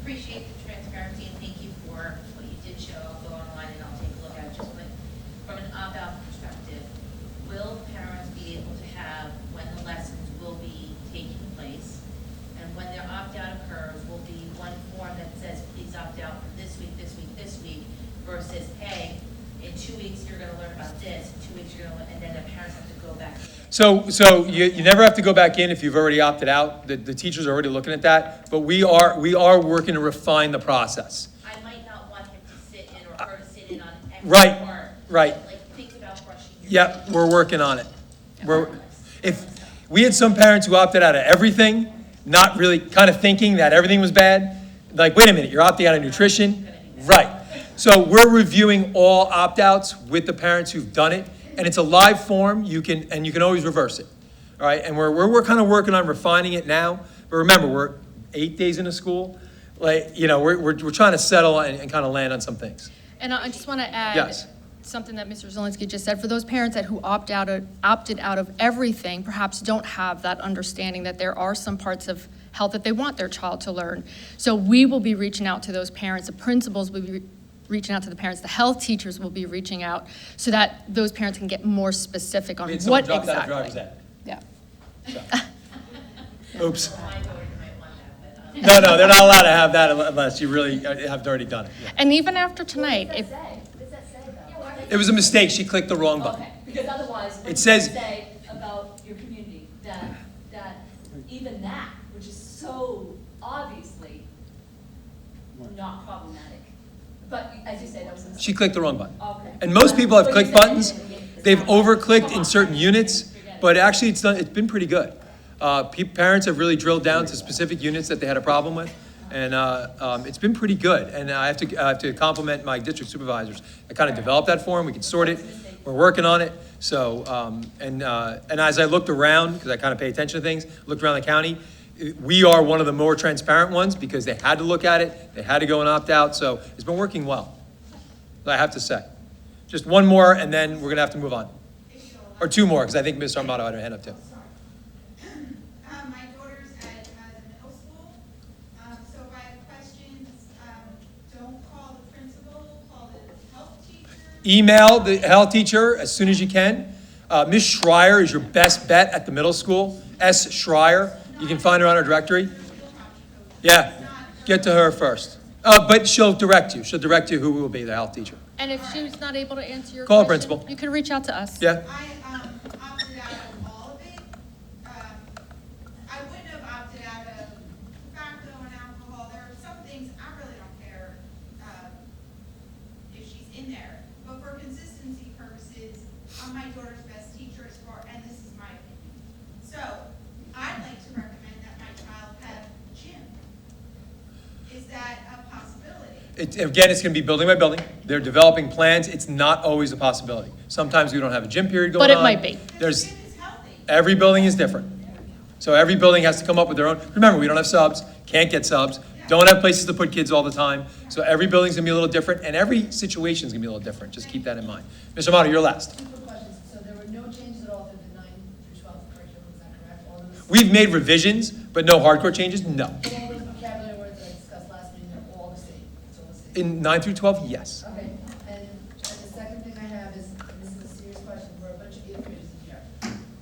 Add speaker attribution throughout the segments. Speaker 1: appreciate the transparency and thank you for what you did show. I'll go online and I'll take a look at it. Just but from an opt-out perspective, will parents be able to have when the lessons will be taking place? And when their opt-out occurs, will be one form that says, please opt out for this week, this week, this week, versus, hey, in two weeks, you're gonna learn about this, in two weeks, you're gonna, learn and then the parents have to go back.
Speaker 2: So, so you, you never have to go back in if you've already opted out. The, the teacher's are already looking at that. But we are, we are working to refine the process.
Speaker 1: I might not want him to sit in or her to sit in on X
Speaker 2: Right,
Speaker 1: or.
Speaker 2: right.
Speaker 1: Like, think about brushing your.
Speaker 2: Yep,
Speaker 1: teeth.
Speaker 2: we're working on it. We're, if, we had some parents who opted out of everything, not really, kind of thinking that everything was bad. Like, wait a minute, you're opting out of nutrition? Right. So we're reviewing all opt-outs with the parents who've done it, and it's a live form, you can, and you can always reverse it. All right, and we're, we're, we're kind of working on refining it now, but remember, we're eight days into school. Like, you know, we're, we're, we're trying to settle and, and kind of land on some things.
Speaker 3: And I I just want to add
Speaker 2: Yes.
Speaker 3: something that Mr. Zelinski just said. For those parents that who opt out of, opted out of everything, perhaps don't have that understanding that there are some parts of health that they want their child to learn. So we will be reaching out to those parents. The principals will be re- reaching out to the parents. The health teachers will be reaching out so that those parents can get more specific on
Speaker 2: We had someone
Speaker 3: what
Speaker 2: drop out of driver's
Speaker 3: exactly.
Speaker 2: ed.
Speaker 3: Yeah.
Speaker 2: Oops.
Speaker 1: My daughter might want that, but, um,
Speaker 2: No, no, they're not allowed to have that unless you really uh, have already done it. yeah.
Speaker 3: And even after tonight, if,
Speaker 2: It was a mistake, she clicked the wrong button.
Speaker 4: Okay, because otherwise, what
Speaker 2: It
Speaker 4: do you
Speaker 2: says-
Speaker 4: say about your community, that, that even that, which is so obviously not problematic, but as you say, that was a mistake.
Speaker 2: She clicked the wrong button.
Speaker 4: Okay.
Speaker 2: And most people have
Speaker 4: But you
Speaker 2: clicked
Speaker 4: said-
Speaker 2: buttons, they've over-clicked in certain units, but actually, it's done, it's been pretty good. Uh, pe- Parents have really drilled down to specific units that they had a problem with, and uh, um, it's been pretty good. And I have to, I have to compliment my district supervisors. I kind of developed that for them, we can sort it, we're working on it. So, um, and, uh, and as I looked around, because I kind of pay attention to things, looked around the county, i- we are one of the more transparent ones, because they had to look at it, they had to go and opt out, so it's been working well. I have to say. Just one more, and then we're going to have to move on. Or two more, because I think Ms. Armato had her hand up too.
Speaker 5: Um, my daughter's at, uh, the middle school, um, so if I have questions, um, don't call the principal, call the health teacher.
Speaker 2: Email the health teacher as soon as you can. Uh, Ms. Schreier is your best bet at the middle school, S. Schreier. You can find her on our directory. Yeah, get to her first. Uh, But she'll direct you, she'll direct you who will be the health teacher.
Speaker 3: and if she's not able to answer your
Speaker 2: Call her
Speaker 3: question,
Speaker 2: principal.
Speaker 3: you can reach out to us.
Speaker 2: Yeah?
Speaker 5: I, um, opted out of all of it. Um, I wouldn't have opted out of tobacco and alcohol. There are some things I really don't care, um, if she's in there. But for consistency purposes, I'm my daughter's best teacher as far, and this is my opinion. So I'd like to recommend that my child have gym. Is that a possibility?
Speaker 2: It- Again, it's going to be building by building. They're developing plans. It's not always a possibility. Sometimes we don't have a gym period going on.
Speaker 3: But it might be.
Speaker 2: There's.
Speaker 5: Gym is healthy.
Speaker 2: Every building is different. So every building has to come up with their own. Remember, we don't have subs, can't get subs, don't have places to put kids all the time. So every building's gonna be a little different, and every situation's gonna be a little different. Just keep that in mind. Mr. Amato, you're last.
Speaker 6: Two quick questions. So there were no changes at all through the nine through twelve curriculum, is that correct? All those,
Speaker 2: We've made revisions, but no hardcore changes? No.
Speaker 6: all those vocabulary words that I discussed last meeting, they're all the same, it's all the same.
Speaker 2: In nine through 12, yes.
Speaker 6: Okay, and, and the second thing I have is, and this is a serious question, we're a bunch of eighth graders in here.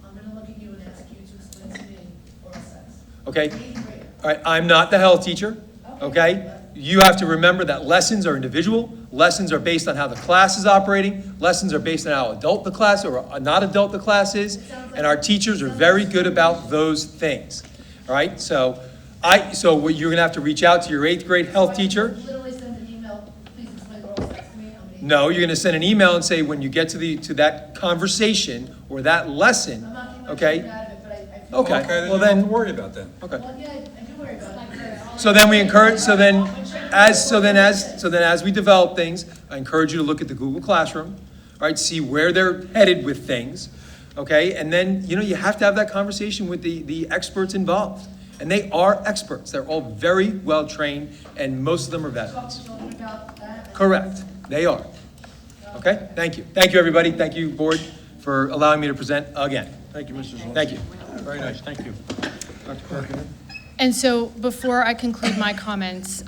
Speaker 6: I'm gonna look at you and ask you to explain to me oral sex.
Speaker 2: Okay?
Speaker 6: Eighth grader.
Speaker 2: All right, I'm not the health teacher, okay? You have to remember that lessons are individual, lessons are based on how the class is operating, lessons are based on how adult the class or not adult the class is, and our teachers are very good about those things, all right? So I, so what you're gonna have to reach out to your eighth grade health teacher.
Speaker 6: So I can Literally send an email, please explain oral sex to me, I'm an eighth
Speaker 2: No, you're gonna send an email and say, when you get to the, to that conversation or that lesson,
Speaker 6: I'm not getting my
Speaker 2: okay?
Speaker 6: children out of it, but I, I feel.
Speaker 2: Okay, well then,
Speaker 7: worry about that.
Speaker 2: okay.
Speaker 6: Well, yeah, I do worry about it.
Speaker 2: So then we encourage, so then, as, so then as, so then as we develop things, I encourage you to look at the Google Classroom, right, see where they're headed with things, okay? And then, you know, you have to have that conversation with the, the experts involved. And they are experts, they're all very well-trained, and most of them are
Speaker 6: Talk
Speaker 2: veterans.
Speaker 6: to children about that. and-
Speaker 2: Correct, they are. Okay, thank you. Thank you, everybody, thank you, board, for allowing me to present again.
Speaker 7: Thank you, Mr. Zalinski.
Speaker 2: Thank you.
Speaker 7: Very nice, thank you. Dr. Perkins?
Speaker 3: And so before I conclude my comments,